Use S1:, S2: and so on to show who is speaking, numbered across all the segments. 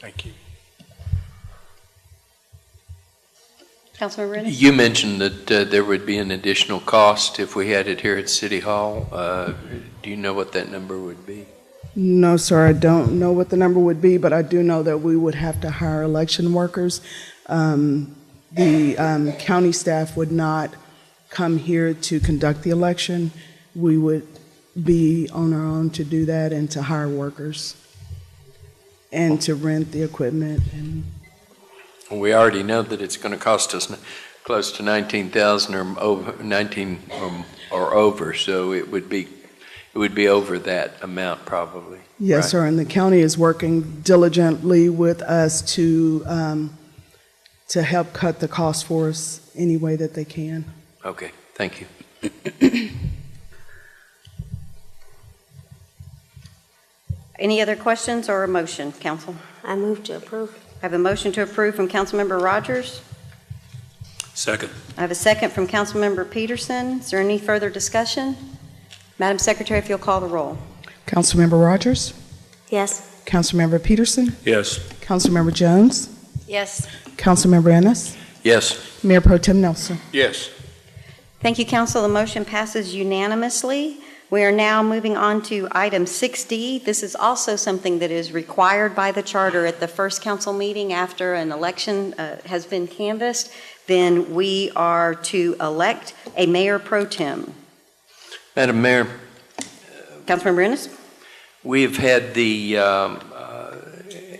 S1: Thank you.
S2: Councilmember Rennie?
S3: You mentioned that uh, there would be an additional cost if we had it here at City Hall. Uh, Do you know what that number would be?
S4: No, sir, I don't know what the number would be, but I do know that we would have to hire election workers. Um, The um, county staff would not come here to conduct the election. We would be on our own to do that and to hire workers and to rent the equipment. And
S3: We already know that it's going to cost us n- close to 19,000 or m- over, 19 or m- or over, so it would be, it would be over that amount probably. Right.
S4: Yes, sir, and the county is working diligently with us to, um, to help cut the cost for us any way that they can.
S3: Okay, thank you.
S2: Any other questions or a motion, council?
S5: I move to approve.
S2: I have a motion to approve from Councilmember Rogers.
S1: Second.
S2: I have a second from Councilmember Peterson. Is there any further discussion? Madam Secretary, if you'll call the roll.
S4: Councilmember Rogers?
S5: Yes.
S4: Councilmember Peterson,
S1: Yes.
S4: Councilmember Jones,
S5: Yes.
S4: Councilmember Ennis,
S3: Yes,
S4: Mayor Pro Tem Nelson.
S1: Yes.
S2: Thank you, council. The motion passes unanimously. We are now moving on to item 6D. This is also something that is required by the charter at the first council meeting after an election uh, has been canvassed. Then we are to elect a mayor pro tem.
S3: Madam Mayor,
S2: Councilmember Ennis?
S3: We've had the um, uh,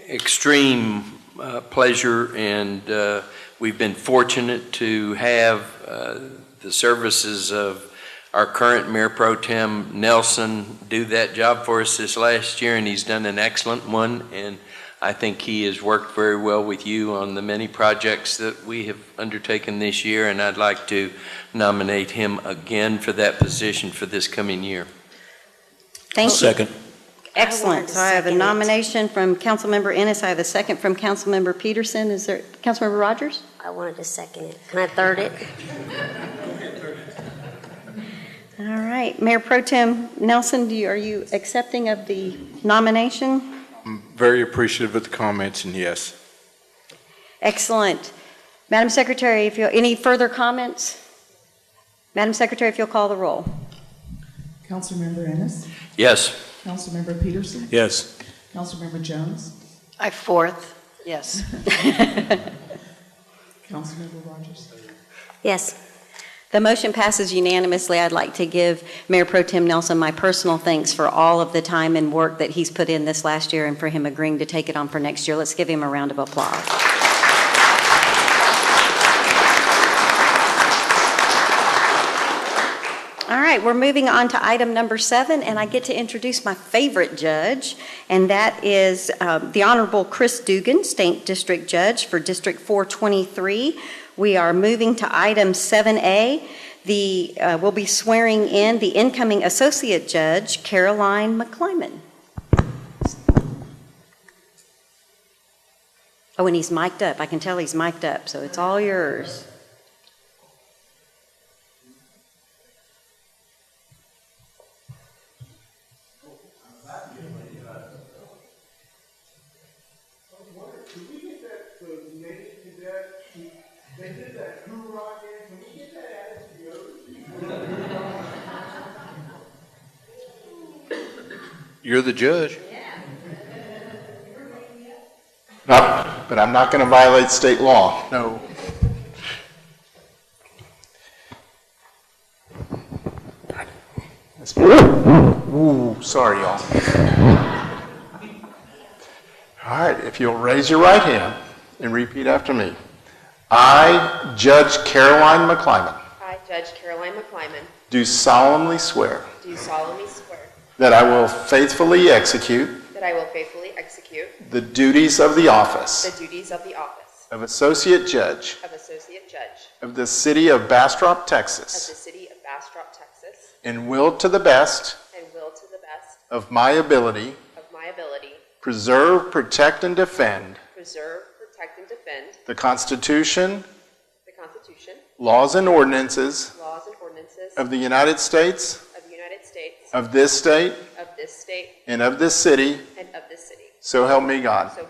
S3: extreme uh, pleasure, and uh, we've been fortunate to have uh, the services of our current Mayor Pro Tem Nelson do that job for us this last year, and he's done an excellent one. And I think he has worked very well with you on the many projects that we have undertaken this year, and I'd like to nominate him again for that position for this coming year.
S2: Thank you.
S1: Second.
S2: Excellent. So I have a
S5: Second it.
S2: nomination from Councilmember Ennis. I have a second from Councilmember Peterson. Is there, Councilmember Rogers?
S5: I wanted to second it. Can I third it?
S2: All right. Mayor Pro Tem Nelson, do you, are you accepting of the nomination?
S6: I'm very appreciative of the comments, and yes.
S2: Excellent. Madam Secretary, if you, any further comments? Madam Secretary, if you'll call the roll.
S4: Councilmember Ennis,
S3: Yes?
S4: Councilmember Peterson,
S1: Yes.
S4: Councilmember Jones,
S7: I fourth, yes.
S4: Councilmember Rogers.
S5: Yes.
S2: The motion passes unanimously. I'd like to give Mayor Pro Tem Nelson my personal thanks for all of the time and work that he's put in this last year and for him agreeing to take it on for next year. Let's give him a round of applause. All right, we're moving on to item number seven, and I get to introduce my favorite judge, and that is uh, the Honorable Chris Dugan, State District Judge for District 423. We are moving to item 7A. The, uh, we'll be swearing in the incoming Associate Judge, Caroline McClyman. Oh, and he's mic'd up. I can tell he's mic'd up, so it's all yours.
S6: You're the judge. No, but I'm not going to violate state law. No. That's- Ooh, sorry, y'all. All right, if you'll raise your right hand and repeat after me. I, Judge Caroline McClyman,
S8: I, Judge Caroline McClyman,
S6: do solemnly swear
S8: do solemnly swear
S6: that I will faithfully execute
S8: that I will faithfully execute
S6: the duties of the office.
S8: the duties of the office
S6: of Associate Judge
S8: of Associate Judge
S6: of the City of Bastrop,
S8: of the
S6: Texas,
S8: City of Bastrop, Texas,
S6: and will to the best
S8: and will to the best
S6: of my ability
S8: of my ability
S6: preserve, protect, and defend
S8: preserve, protect, and defend
S6: the Constitution,
S8: the Constitution,
S6: laws, and ordinances
S8: laws, and ordinances
S6: of the United States,
S8: of the United States,
S6: of this state,
S8: of this state,
S6: and of this city,
S8: and of this city.
S6: so help me God.
S8: So